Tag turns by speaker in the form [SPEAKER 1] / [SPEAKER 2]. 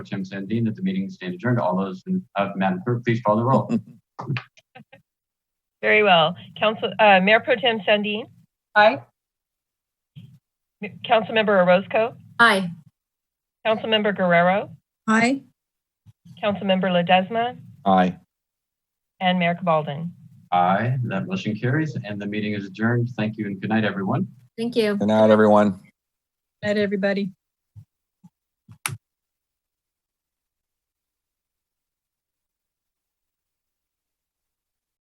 [SPEAKER 1] Tim Sandine, that the meeting stand adjourned. All those, in- uh, Madam Clerk, please call the roll.
[SPEAKER 2] Very well. Council, uh, Mayor Pro Tem Sandin,
[SPEAKER 3] Aye.
[SPEAKER 2] M- Councilmember Orozco,
[SPEAKER 3] Aye.
[SPEAKER 2] Councilmember Guerrero,
[SPEAKER 3] Aye.
[SPEAKER 2] Councilmember Ledesma,
[SPEAKER 4] Aye.
[SPEAKER 2] and Mayor Cabaldon.
[SPEAKER 1] Aye, that motion carries and the meeting is adjourned. Thank you and good night, everyone.
[SPEAKER 3] Thank you.
[SPEAKER 4] Good night, everyone.
[SPEAKER 3] Night, everybody.